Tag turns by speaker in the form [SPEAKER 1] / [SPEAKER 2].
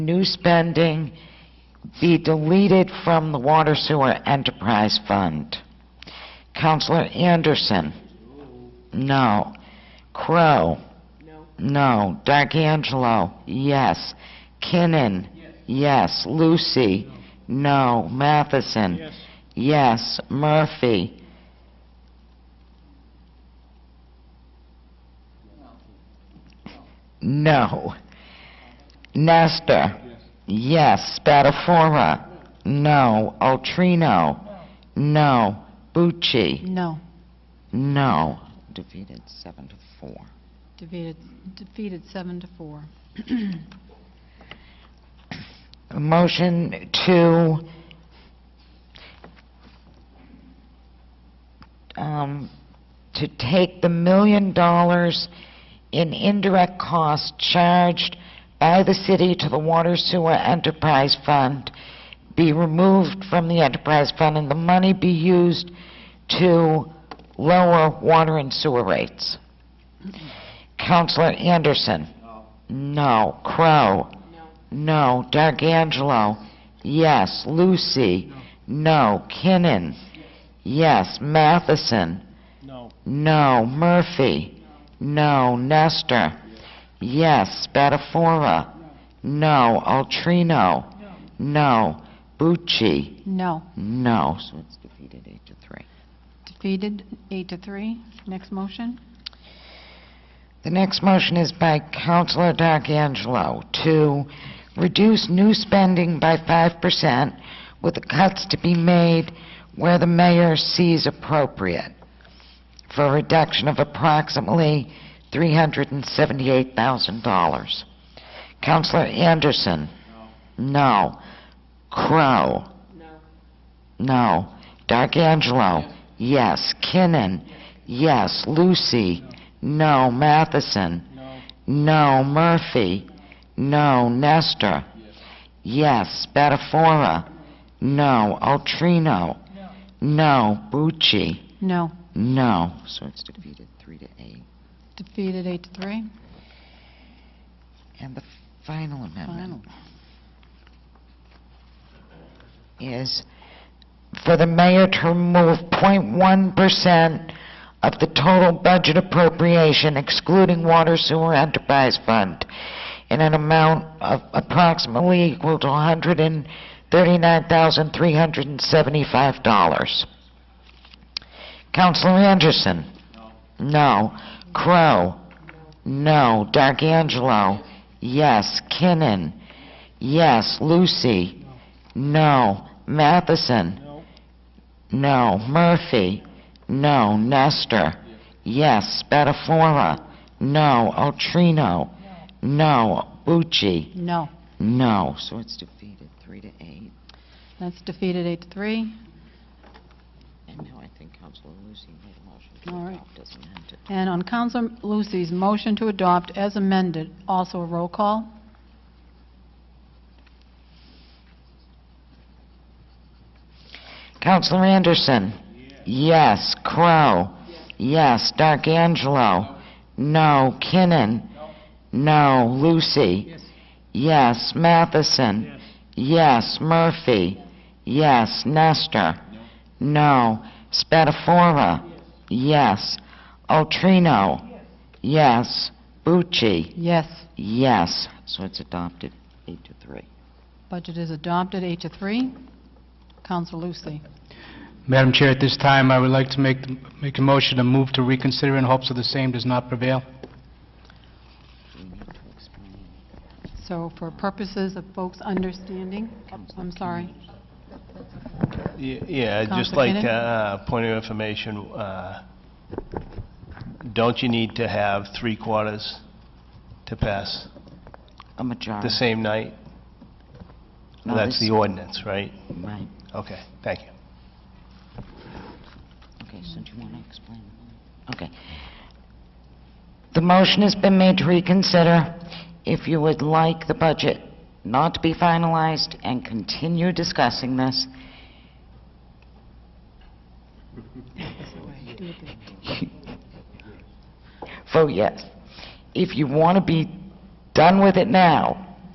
[SPEAKER 1] new spending be deleted from the water sewer enterprise fund. Counselor Anderson? No. Crow?
[SPEAKER 2] No.
[SPEAKER 1] No. D'Angelo? Yes. Kinnon? Yes. Lucy? No. Matheson?
[SPEAKER 3] Yes.
[SPEAKER 1] Yes. Murphy? No. Nestor?
[SPEAKER 3] Yes.
[SPEAKER 1] Yes. Spatafora? No. Altrino? No. Bucci?
[SPEAKER 2] No.
[SPEAKER 1] No. Defeated seven to four.
[SPEAKER 2] Defeated, defeated seven to four.
[SPEAKER 1] A Motion to, um, to take the million dollars in indirect costs charged by the city to the Water Sewer Enterprise Fund be removed from the enterprise fund and the money be used to lower water and sewer rates. Counselor Anderson?
[SPEAKER 3] No.
[SPEAKER 1] No. Crow? No. D'Angelo? Yes. Lucy? No. Kinnon? Yes. Matheson?
[SPEAKER 3] No.
[SPEAKER 1] No. Murphy? No. Nestor? Yes. Spatafora? No. Altrino? No. Bucci?
[SPEAKER 2] No.
[SPEAKER 1] No. So it's defeated eight to three.
[SPEAKER 2] Defeated eight to three. Next motion?
[SPEAKER 1] The next motion is by Councilor D'Angelo to reduce new spending by 5% with the cuts to be made where the mayor sees appropriate for a reduction of approximately $378,000. Councilor Anderson? No. Crow? No. D'Angelo? Yes. Kinnon? Yes. Lucy? No. Matheson?
[SPEAKER 3] No.
[SPEAKER 1] No. Murphy? No. Nestor? Yes. Spatafora? No. Altrino? No. Bucci?
[SPEAKER 2] No.
[SPEAKER 1] No. So it's defeated three to eight.
[SPEAKER 2] Defeated eight to three.
[SPEAKER 1] And the final amendment is for the mayor to remove 0.1% of the total budget appropriation excluding water sewer enterprise fund in an amount of approximately equal to $139,375. Counselor Anderson?
[SPEAKER 3] No.
[SPEAKER 1] No. Crow? No. D'Angelo? Yes. Kinnon? Yes. Lucy? No. Matheson?
[SPEAKER 3] No.
[SPEAKER 1] No. Murphy? No. Nestor? Yes. Spatafora? No. Altrino? No. Bucci?
[SPEAKER 2] No.
[SPEAKER 1] No. So it's defeated, three to eight.
[SPEAKER 2] That's defeated eight to three.
[SPEAKER 1] And now I think Councilor Lucy made a motion
[SPEAKER 2] All
[SPEAKER 1] to
[SPEAKER 2] right.
[SPEAKER 1] adopt as amended.
[SPEAKER 2] And on Council Lucy's motion to adopt as amended, also a roll call?
[SPEAKER 1] Counselor Anderson? Yes. Crow? Yes. D'Angelo? No. Kinnon? No. Lucy?
[SPEAKER 3] Yes.
[SPEAKER 1] Yes. Matheson?
[SPEAKER 3] Yes.
[SPEAKER 1] Yes. Murphy? Yes. Nestor? No. Spatafora? Yes. Altrino? Yes. Bucci?
[SPEAKER 2] Yes.
[SPEAKER 1] Yes. So it's adopted, eight to three.
[SPEAKER 2] Budget is adopted, eight to three. Council Lucy.
[SPEAKER 3] Madam Chair, at this time, I would like to make, make a motion to move to reconsider in hopes that the same does not prevail.
[SPEAKER 1] We need to explain.
[SPEAKER 2] So for purposes of folks understanding, I'm sorry.
[SPEAKER 4] Ye- Yeah, I'd just
[SPEAKER 2] Counselor
[SPEAKER 4] like
[SPEAKER 2] Keenan?
[SPEAKER 4] to, uh, point of information, uh, don't you need to have three quarters to pass
[SPEAKER 1] A majority.
[SPEAKER 4] the same night?
[SPEAKER 1] No,
[SPEAKER 4] That's
[SPEAKER 1] this-
[SPEAKER 4] the ordinance, right?
[SPEAKER 1] Right.
[SPEAKER 4] Okay, thank you.
[SPEAKER 1] Okay, so do you want to explain? Okay. The motion has been made to reconsider. If you would like the budget not to be finalized and continue discussing this, vote yes. If you want to be done with it now,